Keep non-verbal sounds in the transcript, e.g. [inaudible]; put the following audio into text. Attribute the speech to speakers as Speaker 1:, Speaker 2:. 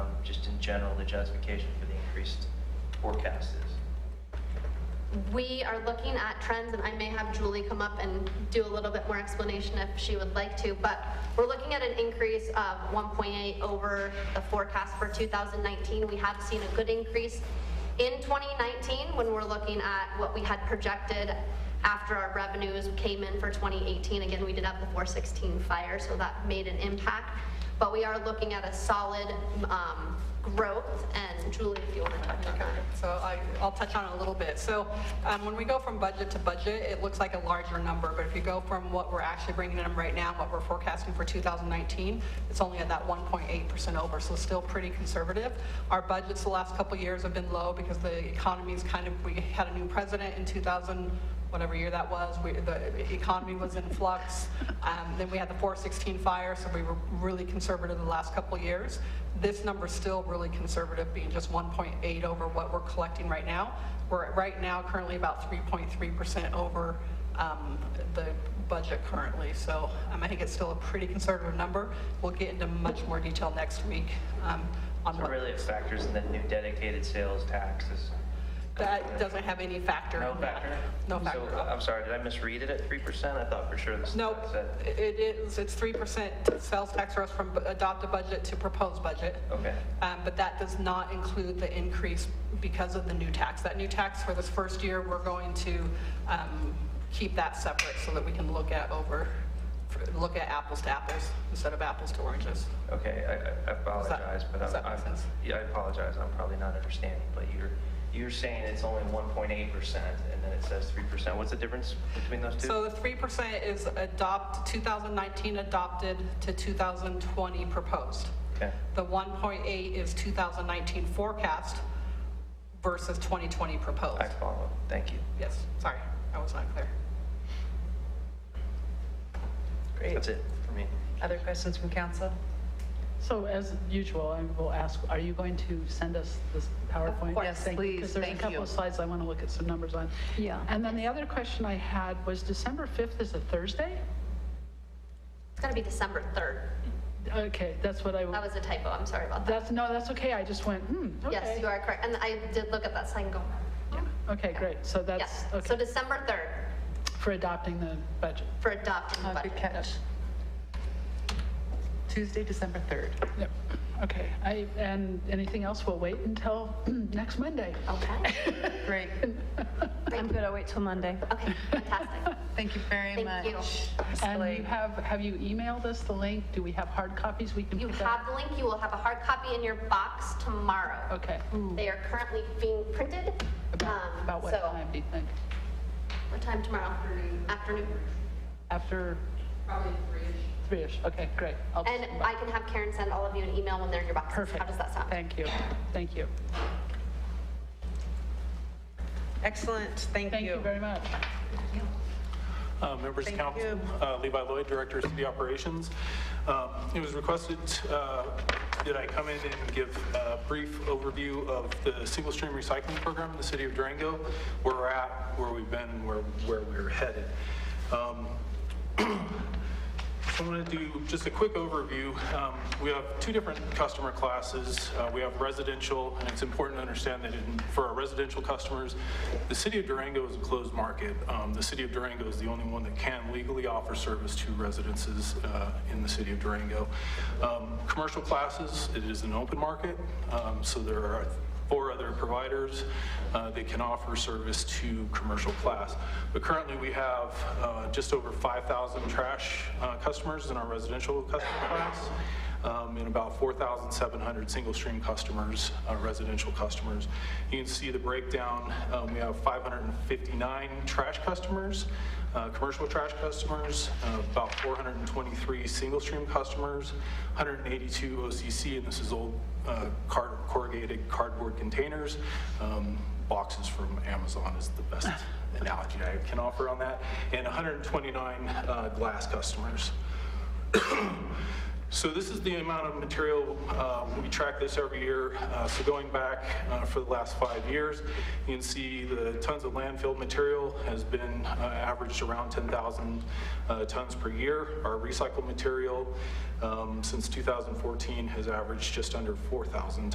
Speaker 1: um, in general the justification for the increased forecast is?
Speaker 2: We are looking at trends, and I may have Julie come up and do a little bit more explanation if she would like to, but we're looking at an increase of 1.8 over the forecast for 2019. We have seen a good increase in 2019 when we're looking at what we had projected after our revenues came in for 2018. Again, we did have the 416 fire, so that made an impact, but we are looking at a solid um, growth, and Julie, if you want to touch on
Speaker 3: Okay,
Speaker 2: that.
Speaker 3: So I, I'll touch on it a little bit. So um, when we go from budget to budget, it looks like a larger number, but if you go from what we're actually bringing in right now, what we're forecasting for 2019, it's only at that 1.8% over, so still pretty conservative. Our budgets the last couple of years have been low because the economy's kind of, we had a new president in 2000, whatever year that was, we, the economy was in flux. Um, then we had the 416 fire, so we were really conservative the last couple of years. This number's still really conservative, being just 1.8 over what we're collecting right now. We're at- right now currently about 3.3% over um, the budget currently. So um, I think it's still a pretty conservative number. We'll get into much more detail next week um, on
Speaker 1: So
Speaker 3: what.
Speaker 1: really it factors in the new dedicated sales taxes.
Speaker 3: That doesn't have any factor.
Speaker 1: No
Speaker 3: in that.
Speaker 1: factor?
Speaker 3: No
Speaker 1: So,
Speaker 3: factor. at all.
Speaker 1: I'm sorry, did I misread it at 3%? I thought for sure this.
Speaker 3: Nope,
Speaker 1: said-
Speaker 3: it is, it's 3% sales tax for us from adopted budget to proposed budget.
Speaker 1: Okay.
Speaker 3: Um, But that does not include the increase because of the new tax. That new tax for this first year, we're going to um, keep that separate so that we can look at over, look at apples to apples instead of apples to oranges.
Speaker 1: Okay, I- I I
Speaker 3: Does that-
Speaker 1: apologize, but
Speaker 3: does
Speaker 1: I'm,
Speaker 3: that make
Speaker 1: I'm-
Speaker 3: sense?
Speaker 1: yeah, I apologize, I'm probably not understanding, but you're, you're saying it's only 1.8% and then it says 3%. What's the difference between those two?
Speaker 3: So the 3% is adopt, 2019 adopted to 2020 proposed.
Speaker 1: Okay.
Speaker 3: The 1.8 is 2019 forecast versus 2020 proposed.
Speaker 1: I follow, thank you.
Speaker 3: Yes, sorry, I was not clear.
Speaker 4: Great.
Speaker 1: That's it for me.
Speaker 4: Other questions from council?
Speaker 5: So as usual, I will ask, are you going to send us this PowerPoint?
Speaker 4: course. Please,
Speaker 5: Because there's a
Speaker 4: thank
Speaker 5: couple
Speaker 4: you.
Speaker 5: of slides I want to look at some numbers on.
Speaker 6: Yeah.
Speaker 5: And then the other question I had was December 5th is a Thursday?
Speaker 2: It's gonna be December 3rd.
Speaker 5: Okay, that's what
Speaker 2: That
Speaker 5: I,
Speaker 2: was a typo, I'm sorry about that.
Speaker 5: that's, no, that's okay, I just went, hmm, okay.
Speaker 2: Yes, you are correct, and I did look at that sign and go,
Speaker 5: Okay, great, so that's,
Speaker 2: yes. So
Speaker 5: okay,
Speaker 2: December 3rd
Speaker 5: for adopting the budget.
Speaker 2: for adopting the
Speaker 4: Uh, Good
Speaker 2: budget.
Speaker 4: catch. Tuesday, December 3rd.
Speaker 5: Yep, okay, I, and anything else, we'll wait until [clears throat] next Monday.
Speaker 2: Okay,
Speaker 5: [laughs]
Speaker 4: Great.
Speaker 7: I'm good, I'll wait till Monday.
Speaker 2: okay,
Speaker 5: [laughs]
Speaker 2: fantastic.
Speaker 4: Thank you very
Speaker 2: Thank
Speaker 4: much.
Speaker 2: you.
Speaker 4: Ms.
Speaker 5: And you
Speaker 4: Blake.
Speaker 5: have, have you emailed us the link? Do we have hard copies we can
Speaker 2: You
Speaker 5: pick up?
Speaker 2: have the link, you will have a hard copy in your box tomorrow.
Speaker 5: Okay.
Speaker 2: They are currently being printed. um,
Speaker 5: About what
Speaker 2: so-
Speaker 5: time do you think?
Speaker 2: What time tomorrow? Afternoon.
Speaker 5: After? Probably three-ish. Three-ish, okay, great. I'll just-
Speaker 2: And I can have Karen send all of you an email when they're in your box.
Speaker 5: Perfect.
Speaker 2: How does that sound?
Speaker 5: Thank you, thank you.
Speaker 4: Excellent, thank you.
Speaker 5: Thank you very much.
Speaker 8: Uh, Members of
Speaker 4: Thank
Speaker 8: council,
Speaker 4: you.
Speaker 8: uh, Levi Lloyd, Director of City Operations. Um, It was requested uh, that I come in and give a brief overview of the single stream recycling program in the city of Durango, where we're at, where we've been, and where where we're headed. Um, I'm going to do just a quick overview. Um, We have two different customer classes. Uh, We have residential, and it's important to understand that in- for our residential customers, the city of Durango is a closed market. Um, The city of Durango is the only one that can legally offer service to residences uh, in the city of Durango. Um, Commercial classes, it is an open market, um, so there are four other providers uh, that can offer service to commercial class. But currently, we have uh, just over 5,000 trash uh, customers in our residential customer class, um, and about 4,700 single-stream customers, uh, residential customers. You can see the breakdown, um, we have 559 trash customers, uh, commercial trash customers, uh, about 423 single-stream customers, 182 OCC, and this is old uh, car- corrugated cardboard containers. Um, Boxes from Amazon is the best analogy I can offer on that, and 129 uh, glass customers. So this is the amount of material, uh, we track this every year, Uh, so going back uh, for the last five years, you can see the tons of landfill material has been uh, averaged around 10,000 uh, tons per year. Our recycled material um, since 2014 has averaged just under 4,000